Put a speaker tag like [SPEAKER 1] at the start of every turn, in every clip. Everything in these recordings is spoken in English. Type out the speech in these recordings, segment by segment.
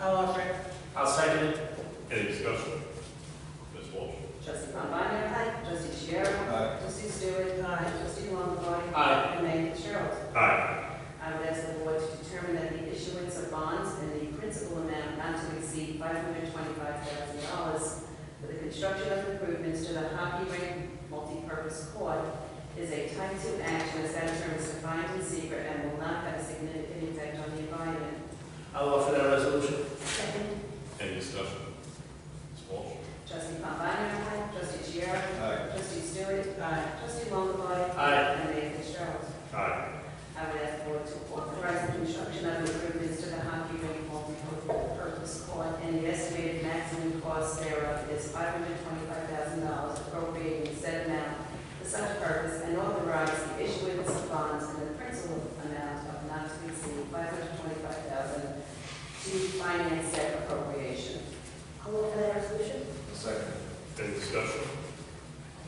[SPEAKER 1] I'll offer it.
[SPEAKER 2] I'll second it.
[SPEAKER 3] Any discussion? Ms. Walsh?
[SPEAKER 4] Trustee Pambana? Aye. Trustee Chiara?
[SPEAKER 3] Aye.
[SPEAKER 4] Trustee Stewart? Aye. Trustee Longbody?
[SPEAKER 2] Aye.
[SPEAKER 4] And Mayor Sherrill?
[SPEAKER 3] Aye.
[SPEAKER 4] I would ask the board to determine that the issuance of bonds in the principal amount not to exceed five hundred twenty-five thousand dollars for the construction of improvements to the hockey rink multipurpose court is a type two action as that term is defined in secret and will not have a significant effect on the environment.
[SPEAKER 2] I'll offer that resolution.
[SPEAKER 4] Second.
[SPEAKER 3] Any discussion? Ms. Walsh?
[SPEAKER 4] Trustee Pambana? Aye. Trustee Chiara?
[SPEAKER 3] Aye.
[SPEAKER 4] Trustee Stewart? Aye. Trustee Longbody?
[SPEAKER 2] Aye.
[SPEAKER 4] And Mayor Sherrill?
[SPEAKER 3] Aye.
[SPEAKER 4] I would ask the board to authorize the construction of improvements to the hockey rink multi-purpose court, and the estimated maximum cost thereof is five hundred twenty-five thousand dollars appropriating said amount for such purpose, and authorize the issuance of bonds in the principal amount of not to exceed five hundred twenty-five thousand dollars to finance said appropriation.
[SPEAKER 1] I'll offer that resolution.
[SPEAKER 3] Second. Any discussion?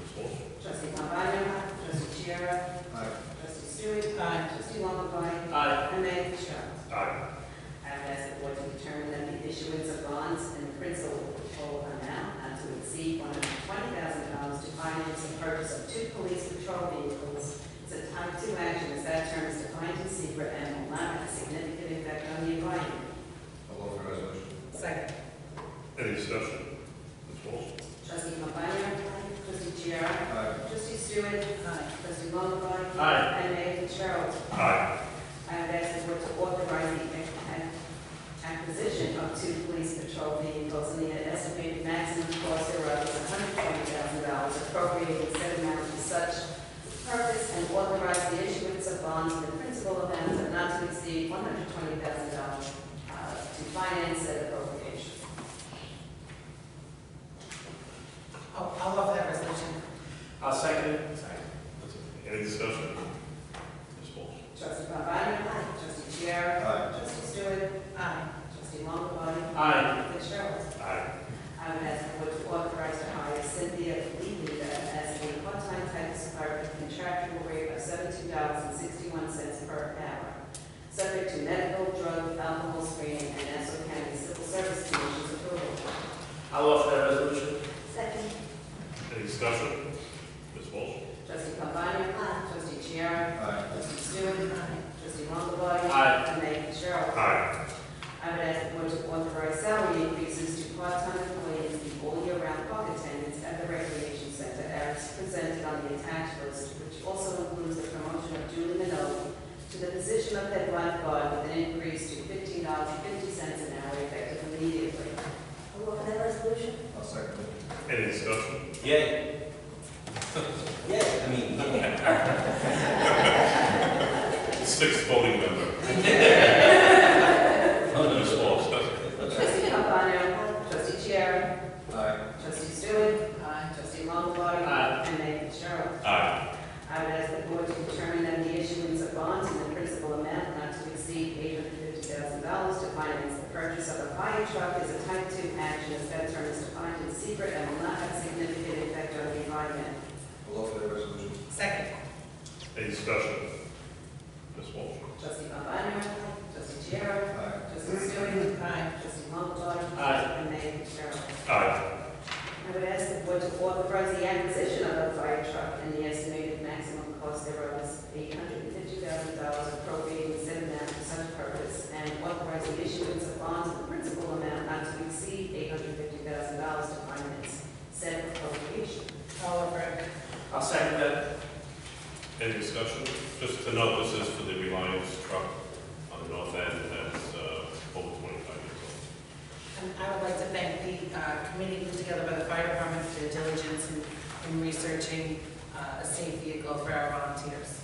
[SPEAKER 3] Ms. Walsh?
[SPEAKER 4] Trustee Pambana? Trustee Chiara?
[SPEAKER 3] Aye.
[SPEAKER 4] Trustee Stewart? Aye. Trustee Longbody?
[SPEAKER 2] Aye.
[SPEAKER 4] And Mayor Sherrill?
[SPEAKER 3] Aye.
[SPEAKER 4] I would ask the board to determine that the issuance of bonds in principal amount not to exceed one hundred twenty thousand dollars to finance the purchase of two police patrol vehicles is a type two action as that term is defined in secret and will not have a significant effect on the environment.
[SPEAKER 3] I'll offer resolution.
[SPEAKER 4] Second.
[SPEAKER 3] Any discussion? Ms. Walsh?
[SPEAKER 4] Trustee Pambana? Trustee Chiara?
[SPEAKER 3] Aye.
[SPEAKER 4] Trustee Stewart? Aye. Trustee Longbody?
[SPEAKER 2] Aye.
[SPEAKER 4] And Mayor Fitzgerald.
[SPEAKER 3] Aye.
[SPEAKER 4] I would ask the board to authorize the ac- acquisition of two police patrol vehicles in the estimated maximum cost thereof is hundred twenty thousand dollars appropriated said amount for such purpose and authorize the issuance of bonds in the principal amount of not to exceed one hundred twenty thousand dollars uh, to finance said appropriation.
[SPEAKER 1] I'll, I'll offer that resolution.
[SPEAKER 2] I'll second it.
[SPEAKER 3] Any discussion? Ms. Walsh?
[SPEAKER 4] Trustee Pambana? Aye. Trustee Chiara?
[SPEAKER 3] Aye.
[SPEAKER 4] Trustee Stewart?
[SPEAKER 1] Aye.
[SPEAKER 4] Trustee Longbody?
[SPEAKER 2] Aye.
[SPEAKER 4] Fitzgerald.
[SPEAKER 3] Aye.
[SPEAKER 4] I would ask the board to authorize to hire Cynthia Levy as a part-time typist clerk at a contractual rate of seventeen dollars and sixty-one cents per hour, subject to medical, drug, alcohol screening, and Nassau County Civil Service Commission's approval.
[SPEAKER 2] I'll offer that resolution.
[SPEAKER 4] Second.
[SPEAKER 3] Any discussion? Ms. Walsh?
[SPEAKER 4] Trustee Pambana? Aye. Trustee Chiara?
[SPEAKER 3] Aye.
[SPEAKER 4] Trustee Stewart? Aye. Trustee Longbody?
[SPEAKER 2] Aye.
[SPEAKER 4] And Mayor Fitzgerald.
[SPEAKER 3] Aye.
[SPEAKER 4] I would ask the board to authorize salary increases to part-time employees and all-year-round park attendants at the recreation center as presented on the attached list, which also includes the promotion of Julie Minot to the position of head lifeguard with an increase to fifteen dollars and fifty cents an hour effective immediately.
[SPEAKER 1] I'll offer that resolution.
[SPEAKER 3] I'll second it. Any discussion?
[SPEAKER 5] Yay. Yay, I mean, yay.
[SPEAKER 3] Sixth voting member. Ms. Walsh?
[SPEAKER 4] Trustee Cabana. Trustee Chair.
[SPEAKER 3] Aye.
[SPEAKER 4] Trustee Stewart. Aye. Trustee Longbody.
[SPEAKER 2] Aye.
[SPEAKER 4] And Mayor Sherrill.
[SPEAKER 3] Aye.
[SPEAKER 4] I would ask the board to determine that the issuance of bonds in the principal amount not to exceed eight hundred fifty thousand dollars to finance the purchase of a fire truck is a type two action as that term is defined in secret and will not have significant effect on the environment.
[SPEAKER 3] I'll offer that resolution.
[SPEAKER 1] Second.
[SPEAKER 3] Any discussion? Ms. Walsh?
[SPEAKER 4] Trustee Pambana? Trustee Chiara?
[SPEAKER 3] Aye.
[SPEAKER 4] Trustee Stewart?
[SPEAKER 1] Aye.
[SPEAKER 4] Trustee Longbody?
[SPEAKER 2] Aye.
[SPEAKER 4] And Mayor Fitzgerald.
[SPEAKER 3] Aye.
[SPEAKER 4] I would ask the board to authorize the acquisition of a fire truck and the estimated maximum cost thereof is eight hundred and fifty thousand dollars appropriating said amount for such purpose and authorize the issuance of bonds in the principal amount not to exceed eight hundred fifty thousand dollars to finance said appropriation.
[SPEAKER 1] I'll offer it.
[SPEAKER 2] I'll second that.
[SPEAKER 3] Any discussion? Just to note, this is for the Reliance truck on the north end that's uh, over 25 years
[SPEAKER 1] And I would like to thank the uh, committee put together by the fire department for their diligence in- in researching uh, a safe vehicle for our volunteers.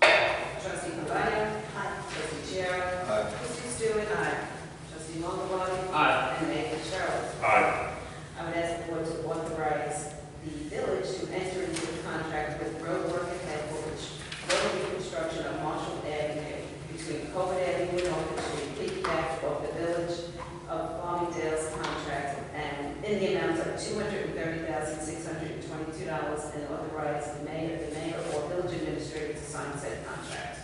[SPEAKER 4] Trustee Cabana? Aye. Trustee Chair?
[SPEAKER 3] Aye.
[SPEAKER 4] Trustee Stewart? Aye. Trustee Longbody?
[SPEAKER 2] Aye.
[SPEAKER 4] And Mayor Fitzgerald?
[SPEAKER 3] Aye.
[SPEAKER 4] I would ask the board to authorize the village to enter into a contract with Roadwork Ahead for which road reconstruction of Marshall Avenue between Covert Avenue and Oak Street, piggybacked off the village of Farmingdale's contract and in the amount of two hundred and thirty thousand, six hundred and twenty-two dollars and authorize the mayor, the mayor or village administrator to sign said contract.